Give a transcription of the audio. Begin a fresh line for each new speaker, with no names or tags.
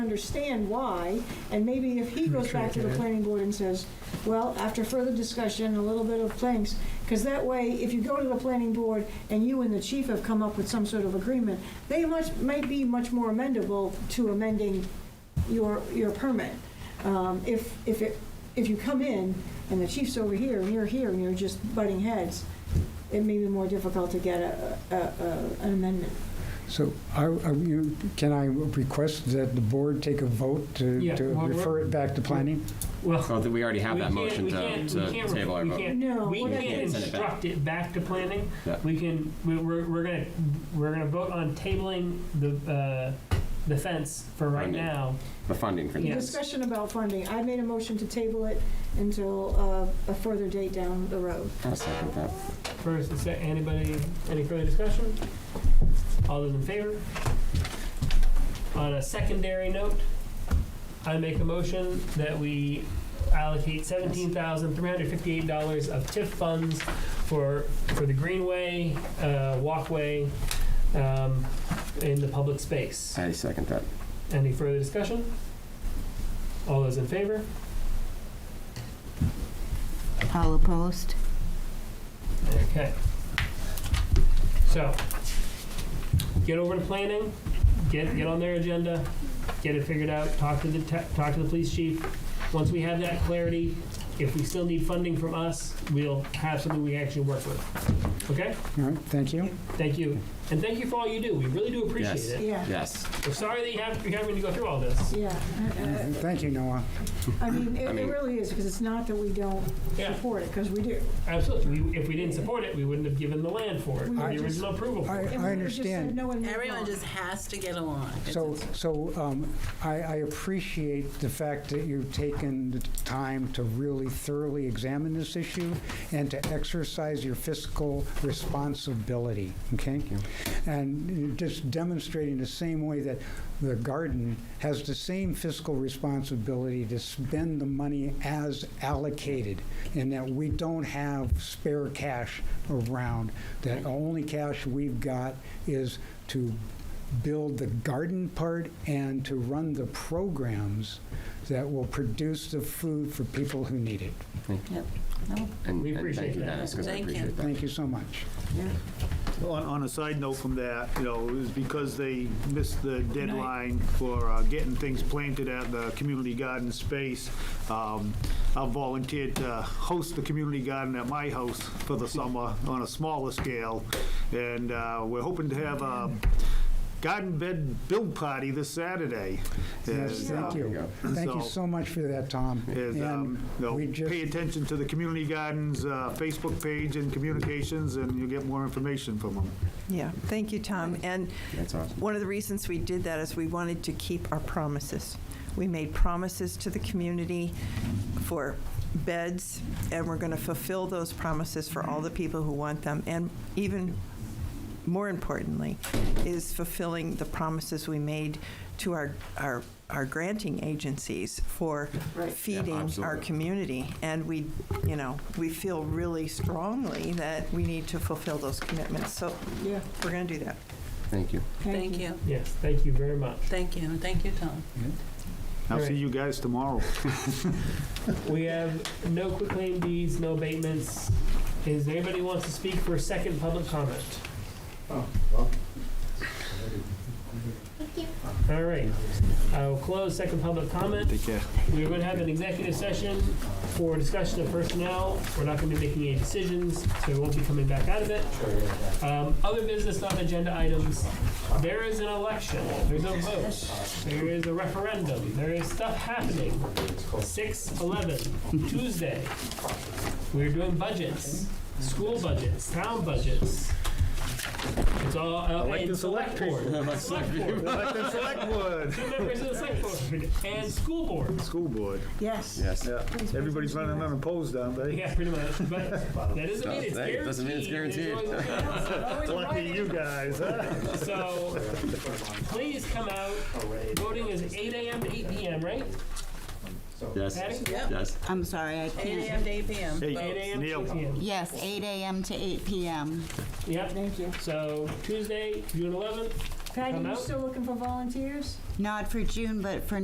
understand why, and maybe if he goes back to the planning board and says, well, after further discussion, a little bit of planks, because that way, if you go to the planning board and you and the chief have come up with some sort of agreement, they much, might be much more amendable to amending your, your permit. Um, If, if it, if you come in and the chief's over here and you're here and you're just butting heads, it may be more difficult to get a, a, a- an amendment.
So are, are you, can I request that the board take a vote to,
Yeah,
to
well, we're-
refer it back to planning?
Well,
Oh, th- we already have
we
that
can't-
motion
we
to
can't- we
to
can't-
table our
we
vote.
can't-
No,
We
we're not
can
gonna-
send it back.
instruct it back to planning.
Yeah.
We can, we- we're, we're gonna, we're gonna vote on tabling the, uh, the fence for right
Funding.
now.
The funding for
Yeah.
this.
Discussion about funding, I made a motion to table it until uh, a further date down the road.
I'll second that.
First, and sec- anybody, any further discussion? All those in favor? On a secondary note, I make a motion that we allocate seventeen thousand three hundred fifty-eight dollars of TIF funds for, for the greenway, uh, walkway, um, in the public space.
I second that.
Any further discussion? All those in favor?
All opposed?
Okay. So, get over to planning, get, get on their agenda, get it figured out, talk to the, te- talk to the police chief. Once we have that clarity, if we still need funding from us, we'll have something we actually work with. Okay?
All right, thank you.
Thank you. And thank you for all you do. We really do appreciate
Yes.
it.
Yeah,
Yes.
We're sorry that you have, you're having to go through all this.
yeah. I-
Thank you, Noah.
I I mean, it
I
it
mean-
really is, because it's not that we don't
Yeah.
support it, because we do.
Absolutely. We, if we didn't support it, we wouldn't have given the land for it, or
I
the
just-
original approval for
I,
it.
And
I
we just said
understand.
no and moved
Everyone
on.
just has to get along. It's-
So,
it's-
so um, I, I appreciate the fact that you've taken the time to really thoroughly examine this issue and to exercise your fiscal responsibility, okay? And you're just demonstrating the same way that the garden has the same fiscal responsibility to spend the money as allocated, and that we don't have spare cash around, that the only cash we've got is to build the garden part and to run the programs that will produce the food for people who need it.
Yep. No,
And,
We
and
appreciate
thank you,
that.
Dennis, because I
Thank you.
appreciate that.
Thank you so much.
On, on a side note from that, you know, is because they missed the deadline for uh, getting things planted at the community garden space, um, I volunteered to host the community garden at my house for the summer on a smaller scale. And uh, we're hoping to have a garden bed build party this Saturday.
Yes,
And,
thank
uh,
you. Thank you
So-
so much for that, Tom.
is, um, you
And
know,
we just,
pay attention to the community gardens uh, Facebook page and communications, and you'll get more information from them.
Yeah, thank you, Tom. And
That's awesome.
one of the reasons we did that is we wanted to keep our promises. We made promises to the community for beds, and we're going to fulfill those promises for all the people who want them. And even more importantly, is fulfilling the promises we made to our, our, our granting agencies for
Right.
Yeah,
feeding our
absolutely.
community. And we, you know, we feel really strongly that we need to fulfill those commitments. So
Yeah,
we're going to do that.
Thank you.
Thank you,
Yes, thank you very much.
thank you, and thank you, Tom.
I'll
All right.
see you guys tomorrow.
We have no quitclaim deeds, no abatements. Is there anybody who wants to speak for a second public comment? All right, I will close second public comment.
Take care.
We're going to have an executive session for discussion of personnel. We're not going to be making any decisions, so we won't be coming back out of it. Um, Other business, non-agenda items. There is an election, there's a vote, there is a referendum, there is stuff happening. 6/11, Tuesday. We're doing budgets, school budgets, town budgets. It's all, uh,
like
and
this
select board, select board,
Elect the select board.
members of the select board, and school board.
School board.
yes.
Yes.
Yeah. Everybody's running unopposed, aren't they?
Yeah, pretty much. But that doesn't mean it's
Hey,
guaranteed.
it doesn't mean it's
There's always a chance.
Lucky you guys, huh?
So please come out. Voting is 8 a.m. to 8 p.m., right?
Yes.
Patty?
Yes.
I'm sorry, I
Eight
can't.
AM to eight PM.
Hey,
8 a.m. to 8
Neil,
p.m.
Yes, 8 AM to 8 PM.
Yep.
Thank you.
So Tuesday, June 11th.
Patty,
Come
you
out.
still looking for volunteers?
Not for June, but for